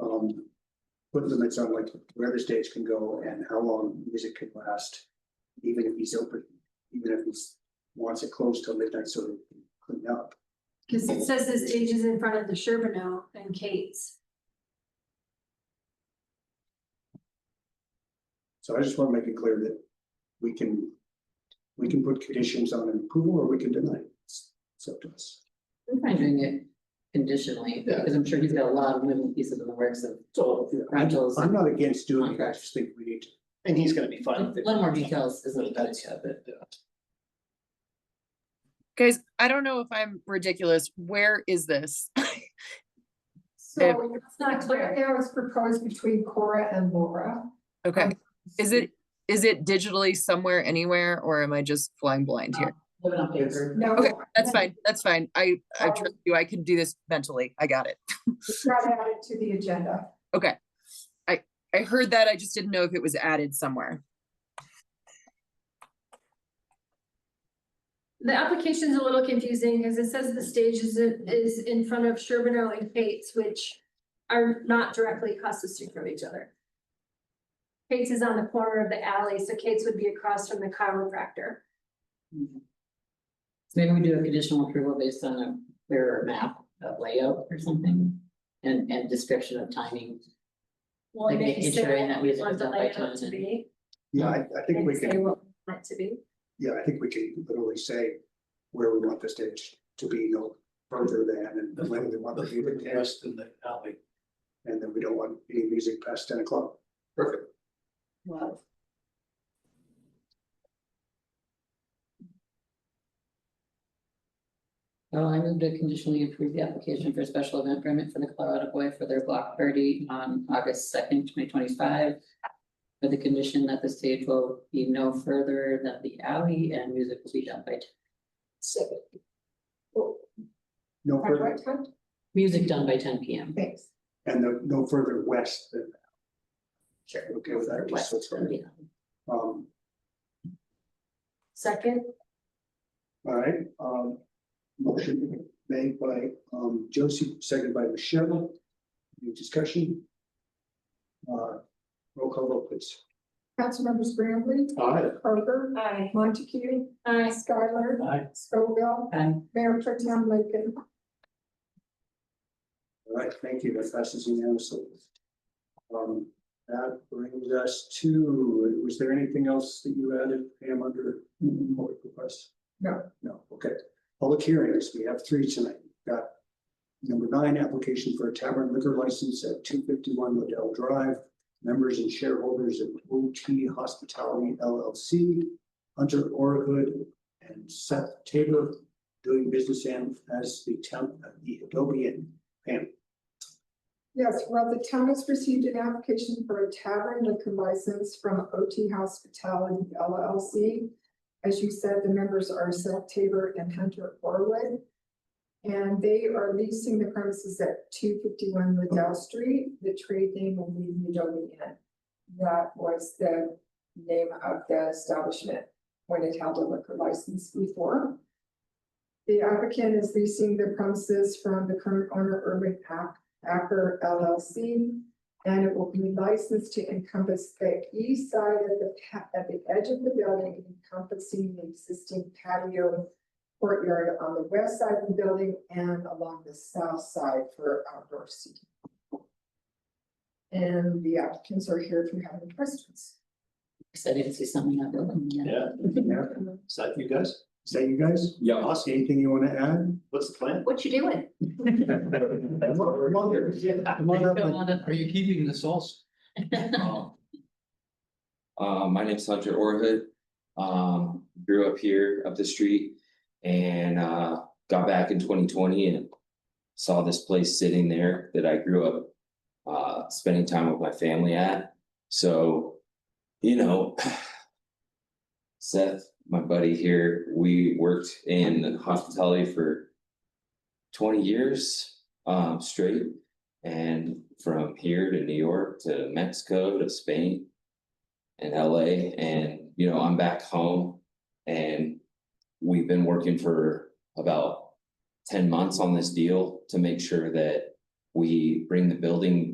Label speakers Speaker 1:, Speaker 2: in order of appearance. Speaker 1: um, put limits on like where the stage can go and how long music can last. Even if he's open, even if he's wants it closed till midnight, so they can clean up.
Speaker 2: Cause it says the stage is in front of the Sherbino and Kate's.
Speaker 1: So I just want to make it clear that we can, we can put conditions on an approval or we can deny it. It's it's up to us.
Speaker 3: I'm fine doing it conditionally,
Speaker 1: Yeah.
Speaker 3: because I'm sure he's got a lot of moving pieces in the works of
Speaker 4: So, yeah,
Speaker 3: rentals.
Speaker 1: I'm not against doing it, I just think we need to.
Speaker 4: and he's gonna be
Speaker 3: A
Speaker 4: fine. with it.
Speaker 3: little more details is what it does, yeah, but.
Speaker 4: Yeah.
Speaker 5: Guys, I don't know if I'm ridiculous. Where is this?
Speaker 6: So it's not clear, there was proposed between Cora and Laura.
Speaker 5: Okay, Um, is it, is it digitally somewhere anywhere or am I just flying blind here?
Speaker 3: Living on paper.
Speaker 6: No.
Speaker 5: Okay, that's fine, that's fine. I, I trust you. I can do this mentally. I got it.
Speaker 6: Um, It's not added to the agenda.
Speaker 5: Okay. I, I heard that. I just didn't know if it was added somewhere.
Speaker 2: The application's a little confusing because it says the stage is, in- is in front of Sherbino and Kate's, which are not directly across the street from each other. Kate's is on the corner of the alley, so Kate's would be across from the chiropractor.
Speaker 3: So Maybe we do a conditional approval based on a clearer map of layout or something, and, and description of timing.
Speaker 2: Well,
Speaker 3: Like
Speaker 2: maybe
Speaker 3: making
Speaker 2: say
Speaker 3: sure that
Speaker 2: what
Speaker 3: we
Speaker 2: we
Speaker 3: have
Speaker 2: want
Speaker 3: it
Speaker 2: the
Speaker 3: done by
Speaker 2: layout to
Speaker 3: time.
Speaker 2: be,
Speaker 1: Yeah, I, I think
Speaker 2: and
Speaker 1: we
Speaker 2: say
Speaker 1: can,
Speaker 2: what we want it to be.
Speaker 1: yeah, I think we can literally say where we want the stage to be no further than and when we want the music to end,
Speaker 4: Rest in the alley.
Speaker 1: and then we don't want any music past ten o'clock.
Speaker 4: Perfect.
Speaker 3: Well. Well, I moved to conditionally approve the application for a special event permit for the Colorado Boy for their block party on August second, twenty twenty-five. With the condition that the stage will be no further than the alley and music will be done by, t-
Speaker 6: Second.
Speaker 1: No
Speaker 6: At
Speaker 1: further,
Speaker 6: what time?
Speaker 3: music done by ten P M.
Speaker 6: Thanks.
Speaker 1: and no, no further west than
Speaker 3: Sure.
Speaker 1: Okay with that, just so it's clear. Um,
Speaker 2: Second,
Speaker 1: all right, um, motion made by, um, Josie, seconded by Michelle. Any discussion? Uh, roll call vote, please.
Speaker 6: Councilmembers Graham,
Speaker 1: All right.
Speaker 6: Kroger,
Speaker 2: aye.
Speaker 6: Montague,
Speaker 2: Aye.
Speaker 6: Skylar,
Speaker 4: Aye.
Speaker 6: Scoville,
Speaker 3: Um,
Speaker 6: Mayor Pro Tem Lincoln.
Speaker 1: All right, thank you. That passes unanimously. Um, that brings us to, was there anything else that you added, Pam, under board request?
Speaker 6: No.
Speaker 1: No, okay. Public hearings, we have three tonight. We've Got number nine, application for a tavern liquor license at two fifty-one Liddell Drive. Members and shareholders of OT Hospitality LLC, Hunter Orhood and Seth Tabor, doing business and- as the town of the Adobe and Pam,
Speaker 6: Yes, well, the town has received an application for a tavern liquor license from OT Hospitality LLC. As you said, the members are Seth Tabor and Hunter Orwood. And they are leasing the premises at two fifty-one Liddell Street. The trade name will be Midoni Inn. That was the name of the establishment when it held a liquor license before. The applicant is leasing the premises from the current owner, Urban Pack Acker LLC. And it will be licensed to encompass the east side of the, pa- at the edge of the building encompassing the existing patio courtyard on the west side of the building and along the south side for outdoor seating. And the applicants are here if you have any questions.
Speaker 3: excited to see something that building, yeah.
Speaker 4: Yeah,
Speaker 1: Yeah,
Speaker 4: is that you guys?
Speaker 1: is that you guys?
Speaker 4: Yeah.
Speaker 1: Ross,
Speaker 4: Awesome.
Speaker 1: anything you want to add?
Speaker 4: What's the plan?
Speaker 2: What you doing?
Speaker 1: Come on, come on here. Come on up and-
Speaker 4: Are you keeping the sauce?
Speaker 7: Um, Uh, my name's Hunter Orhood, um, grew up here up the street and, uh, got back in twenty twenty and. Saw this place sitting there that I grew up, uh, spending time with my family at, so, you know. Seth, my buddy here, we worked in hospitality for twenty years, um, straight. And from here to New York to Mexico to Spain and LA. And, you know, I'm back home and we've been working for about 10 months on this deal to make sure that we bring the building